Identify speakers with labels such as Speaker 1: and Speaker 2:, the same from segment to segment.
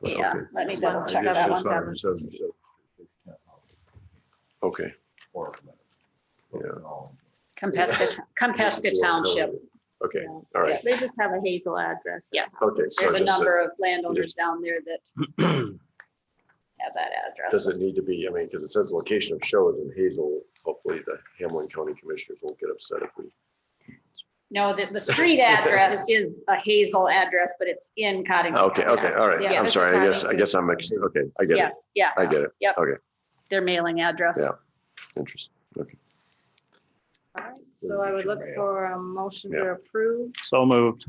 Speaker 1: but
Speaker 2: Yeah,
Speaker 1: okay.
Speaker 2: let me
Speaker 1: That's
Speaker 2: double
Speaker 1: fine.
Speaker 2: check
Speaker 1: Yes,
Speaker 2: that
Speaker 1: yes,
Speaker 2: one.
Speaker 1: I understand, understand. Okay.
Speaker 2: Compesca, Compesca Township.
Speaker 1: Okay,
Speaker 2: Yeah.
Speaker 1: all right,
Speaker 3: They just have a Hazel address.
Speaker 2: Yes,
Speaker 1: okay. so
Speaker 2: there's a
Speaker 1: just, uh,
Speaker 2: number of landowners down there that have that address.
Speaker 1: Does it need to be, I mean, because it says location of show is in Hazel, hopefully the Hamlin County Commissioners won't get upset if we.
Speaker 2: No, the, the street address is a Hazel address, but it's in Cottington.
Speaker 1: Okay, okay, all right,
Speaker 2: Yeah,
Speaker 1: I'm
Speaker 3: it's
Speaker 1: sorry, I guess, I
Speaker 3: Cottington.
Speaker 1: guess I'm, mixed. okay, I get it,
Speaker 2: Yes, yeah,
Speaker 1: I get it,
Speaker 2: their mailing address.
Speaker 1: Yeah. interesting,
Speaker 3: Alright, So I would look for a motion to
Speaker 1: Yeah.
Speaker 3: approve,
Speaker 4: So moved.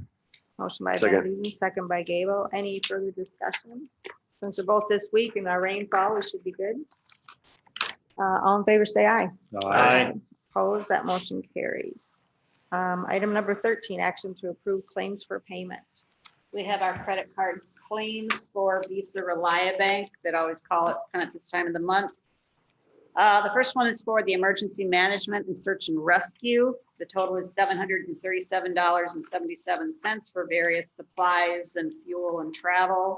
Speaker 3: motion by Van
Speaker 1: Second.
Speaker 3: Duzen, second by Gable. Any further discussion? Since they're both this week and our rainfall, we should be good. Uh, all in favor, say aye.
Speaker 4: Aye.
Speaker 3: Opposed, that motion carries. Um, item number thirteen, action to approve claims for payment.
Speaker 2: We have our credit card claims for Visa ReliaBank that I always call it kind of this time of the month. Uh, the first one is for the emergency management and search and rescue. The total is seven hundred and thirty-seven dollars and seventy-seven cents for various supplies and fuel and travel.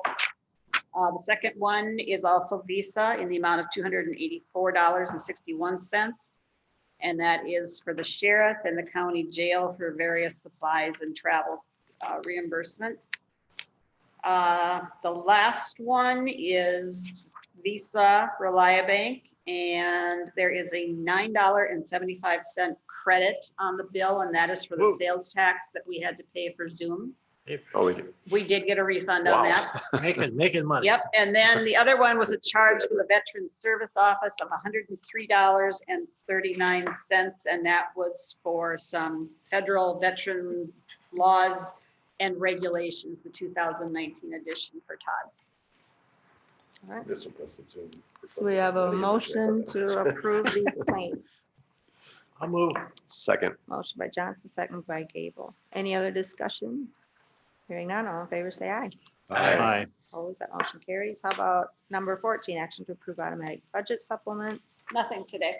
Speaker 2: Uh, the second one is also Visa in the amount of two hundred and eighty-four dollars and sixty-one cents. And that is for the sheriff and the county jail for various supplies and travel uh, reimbursements. Uh, The last one is Visa ReliaBank, and there is a $9.75 credit on the bill, and that is for the
Speaker 4: Whoa.
Speaker 2: sales tax that we had to pay for Zoom.
Speaker 1: Oh, we can-
Speaker 2: We did get a refund on
Speaker 1: Wow.
Speaker 2: that.
Speaker 5: Making, making money.
Speaker 2: Yep, and then the other one was a charge for the Veterans Service Office of hundred and three dollars and thirty-nine cents, and that was for some federal veteran laws and regulations, the two thousand nineteen edition for Todd.
Speaker 1: that's impressive, too.
Speaker 3: Do we have a motion to approve these claims?
Speaker 5: I'll move.
Speaker 1: Second,
Speaker 3: Motion by Johnson, second by Gable. Any other discussion? Hearing none, all in favor, say aye.
Speaker 4: Aye.
Speaker 3: Opposed, that motion carries. How about number 14, action to approve automatic budget supplements?
Speaker 2: Nothing today.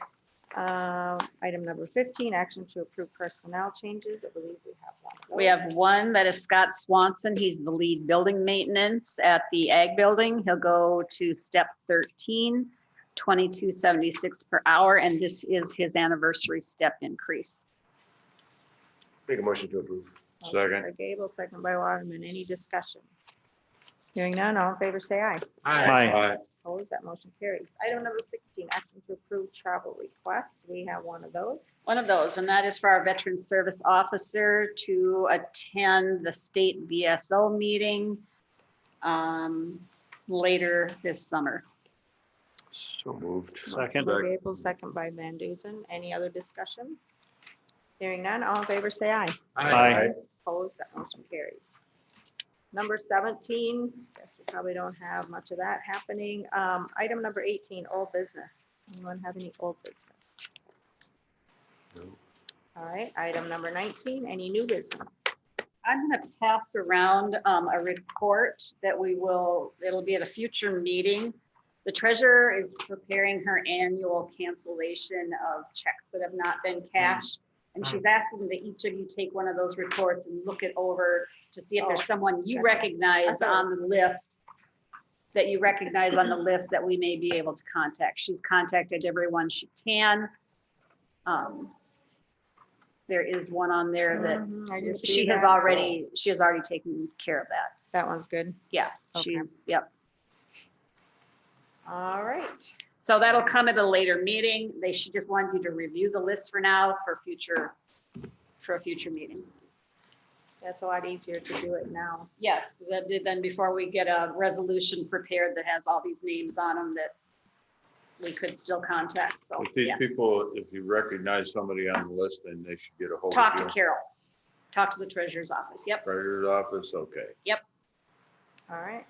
Speaker 3: Um, Item number 15, action to approve personnel changes. I believe we have one. of
Speaker 2: We
Speaker 3: those.
Speaker 2: have one that is Scott Swanson. He's the lead building maintenance at the Ag Building. He'll go to step 13, 2276 per hour, and this is his anniversary step increase.
Speaker 1: make a motion to approve.
Speaker 3: Motion
Speaker 1: Second.
Speaker 3: by Gable, second by Waterman. Any discussion? Hearing none, all in favor, say aye.
Speaker 5: Aye.
Speaker 4: Aye.
Speaker 3: Opposed, that motion carries. Item number 16, action to approve travel requests. We have one of those.
Speaker 2: One of those, and that is for our veteran service officer to attend the state VSO meeting um, later this summer.
Speaker 1: So moved.
Speaker 4: Second.
Speaker 3: By Gable, second by Van Duzen. Any other discussion? Hearing none, all in favor, say aye.
Speaker 4: Aye.
Speaker 3: Opposed, that motion carries. Number 17, guess we probably don't have much of that happening. Um, Item number 18, old business. Anyone have any old business?
Speaker 1: No.
Speaker 3: All right, item number 19, any new business?
Speaker 2: I'm gonna pass around um, a report that we will, it'll be at a future meeting. The treasurer is preparing her annual cancellation of checks that have not been
Speaker 3: Mm.
Speaker 2: cashed. And she's asking that each of you take one of those reports and look it over to see if
Speaker 3: Oh,
Speaker 2: there's someone you
Speaker 3: gotcha. I
Speaker 2: recognize
Speaker 3: thought-
Speaker 2: on the list, that you recognize on the list that we may be able to contact. She's contacted everyone she can. Um, There is one on there that
Speaker 3: Mhm, I just see
Speaker 2: she has
Speaker 3: that.
Speaker 2: already, she has already taken care of that.
Speaker 3: That one's good.
Speaker 2: Yeah,
Speaker 3: Okay.
Speaker 2: she's, yep.
Speaker 3: All right,
Speaker 2: So that'll come at a later meeting. They should just want you to review the list for now for future, for a future meeting.
Speaker 3: that's a lot easier to do it now.
Speaker 2: Yes, then then before we get a resolution prepared that has all these names on them that we could still contact, so,
Speaker 6: If these
Speaker 2: yeah.
Speaker 6: people, if you recognize somebody on the list, then they should get a hold
Speaker 2: Talk to
Speaker 6: of you.
Speaker 2: Carol. Talk to the treasurer's office. Yep,
Speaker 6: Treasurer's office, okay.
Speaker 3: All right.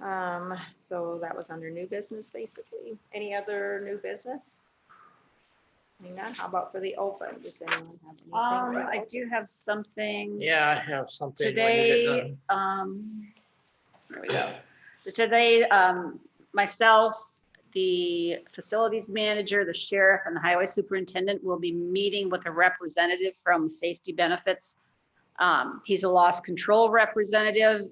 Speaker 3: Um, so that was under new business, basically. Any other new business? Hang on, how about for the open? Does anyone have anything? for
Speaker 2: um,
Speaker 3: the
Speaker 2: I
Speaker 3: open?
Speaker 2: do have something.
Speaker 5: Yeah, I have something. when you get
Speaker 2: Today,
Speaker 5: done.
Speaker 2: um, there we go. Today, um, myself, the facilities manager, the sheriff and the highway superintendent will be meeting with a representative from Safety Benefits. Um, he's a loss control representative